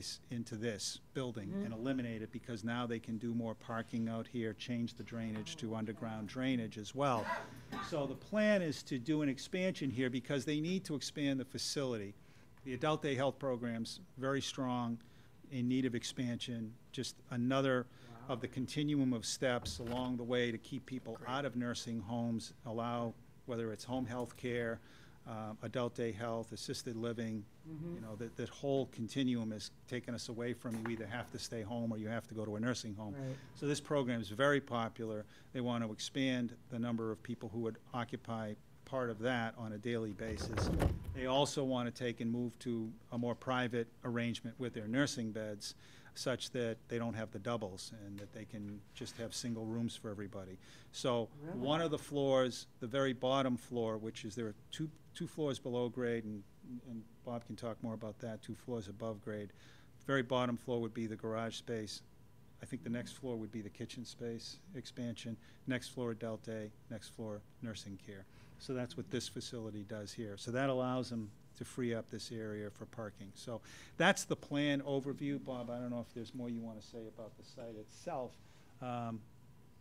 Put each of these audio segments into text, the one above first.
space into this building and eliminate it, because now they can do more parking out here, change the drainage to underground drainage as well. So the plan is to do an expansion here, because they need to expand the facility. The adult day health program's very strong, in need of expansion, just another of the continuum of steps along the way to keep people out of nursing homes, allow, whether it's home health care, um, adult day health, assisted living, you know, that, that whole continuum has taken us away from, you either have to stay home or you have to go to a nursing home. Right. So this program is very popular. They want to expand the number of people who would occupy part of that on a daily basis. They also want to take and move to a more private arrangement with their nursing beds such that they don't have the doubles and that they can just have single rooms for everybody. So one of the floors, the very bottom floor, which is there are two, two floors below grade and, and Bob can talk more about that, two floors above grade. Very bottom floor would be the garage space. I think the next floor would be the kitchen space expansion, next floor adult day, next floor nursing care. So that's what this facility does here. So that allows them to free up this area for parking. So that's the plan overview. Bob, I don't know if there's more you want to say about the site itself. um,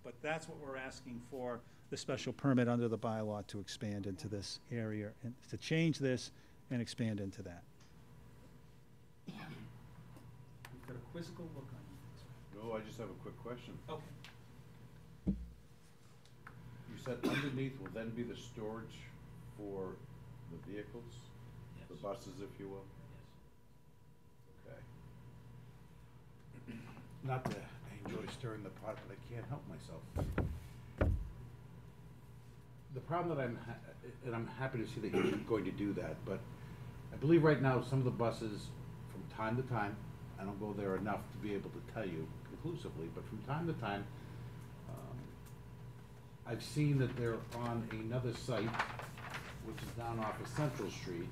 But that's what we're asking for, the special permit under the bylaw to expand into this area and to change this and expand into that. You've got a quizzical look on you. No, I just have a quick question. Okay. You said underneath will then be the storage for the vehicles? The buses, if you will? Okay. Not that I enjoy stirring the pot, but I can't help myself. The problem that I'm, ha- and I'm happy to see that you're going to do that, but I believe right now, some of the buses, from time to time, I don't go there enough to be able to tell you conclusively, but from time to time, um, I've seen that they're on another site, which is down off of Central Street,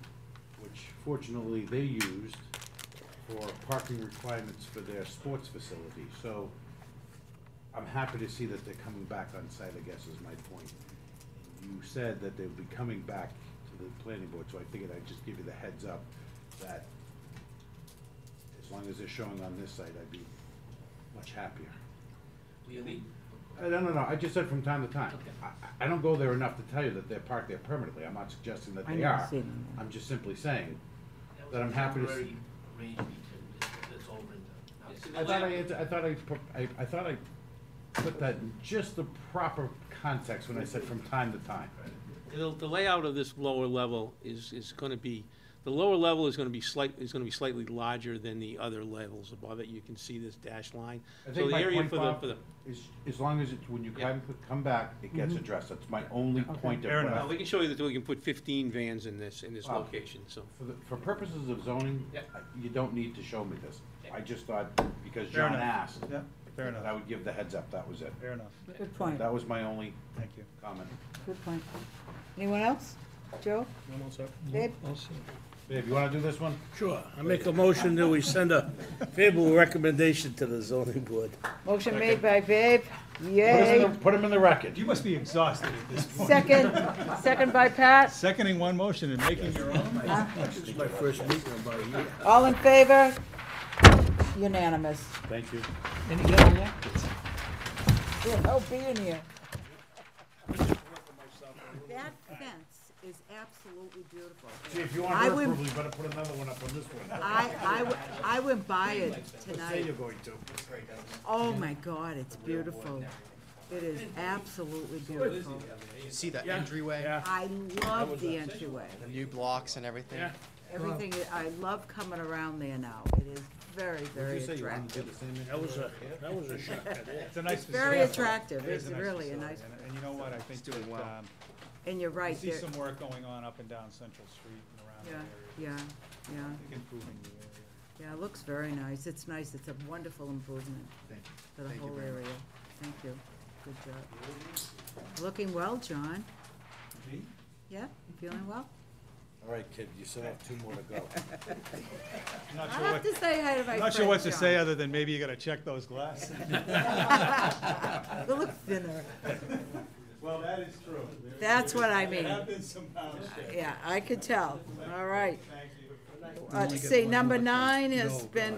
which fortunately they used for parking requirements for their sports facility, so I'm happy to see that they're coming back on site, I guess is my point. You said that they would be coming back to the planning board, so I figured I'd just give you the heads up that as long as they're showing on this site, I'd be much happier. Really? Uh, No, no, no, I just said from time to time. Okay. I- I, I don't go there enough to tell you that they're parked there permanently, I'm not suggesting that I they never are. see them there. I'm just simply saying, That That I'm was a happy to s- temporary arrangement that- that's over and done. Now, see, the I thought I, lab- answered- I thought I, pro- I, I thought I put that in just the proper context when I said from time to time. The the layout of this lower level is, is going to be, the lower level is going to be slight, is going to be slightly larger than the other levels above it. You can see this dash line. I So think the my area point, for the, Bob, for the, is, as long as it's, when you Yeah. come, come back, it gets Mm-hmm. addressed, that's my only point of. Fair what I- enough. Now, we can show you that we can put fifteen vans in this, in this Wow. location, so. For, the- for purposes of zoning, Yeah. I- you don't need to show me this. Yeah. I just thought, because Fair John enough. asked, Yeah, fair that I enough, would give the heads up, that was it. fair enough. Good point, That was my only Thank you. comment. good point. Anyone else? Joe? Dave? Babe, you wanna do this one? Sure, I make a motion that we send a favorable recommendation to the zoning board. Motion made by Babe, Put him yay. in the- Put him in the record. You must be exhausted at this point. Second, second by Pat. Seconding one motion and making your own? This is my first meeting in about a year. All in favor? Unanimous. Thank you. Good, oh, being here. That fence is absolutely beautiful. See, if you I want her would- approval, you better put another one up on this one. I, I, w- I went by it Say you're tonight. going to. Oh my God, it's beautiful. It is absolutely beautiful. You see that entryway, I love the entryway. the new blocks and everything. Everything, is- I love coming around there now. It is very, very attractive. That was a, that was a shock, yeah. It's a nice Very facility. attractive. It is It's really a facility. nice, And- And you know what, I think doing well. that, um, and you're I right see there. some work going on up and down Central Street and around Yeah, the yeah, area. yeah, I think Improving the area. yeah. It looks very nice. It's nice. It's a wonderful improvement for the Thank you whole very area. Thank you. Good job. Looking well, John. Yeah, feeling well? All right, kid, you still have two more to go. I'm not I'll sure have what, to say hi to my I'm friend. not sure what to say John. other than maybe you gotta check those glasses. You look thinner. Well, that is true. That's what I mean. been some pounds. Yeah, I could tell. All right. Thank you. Uh, See, number nine has been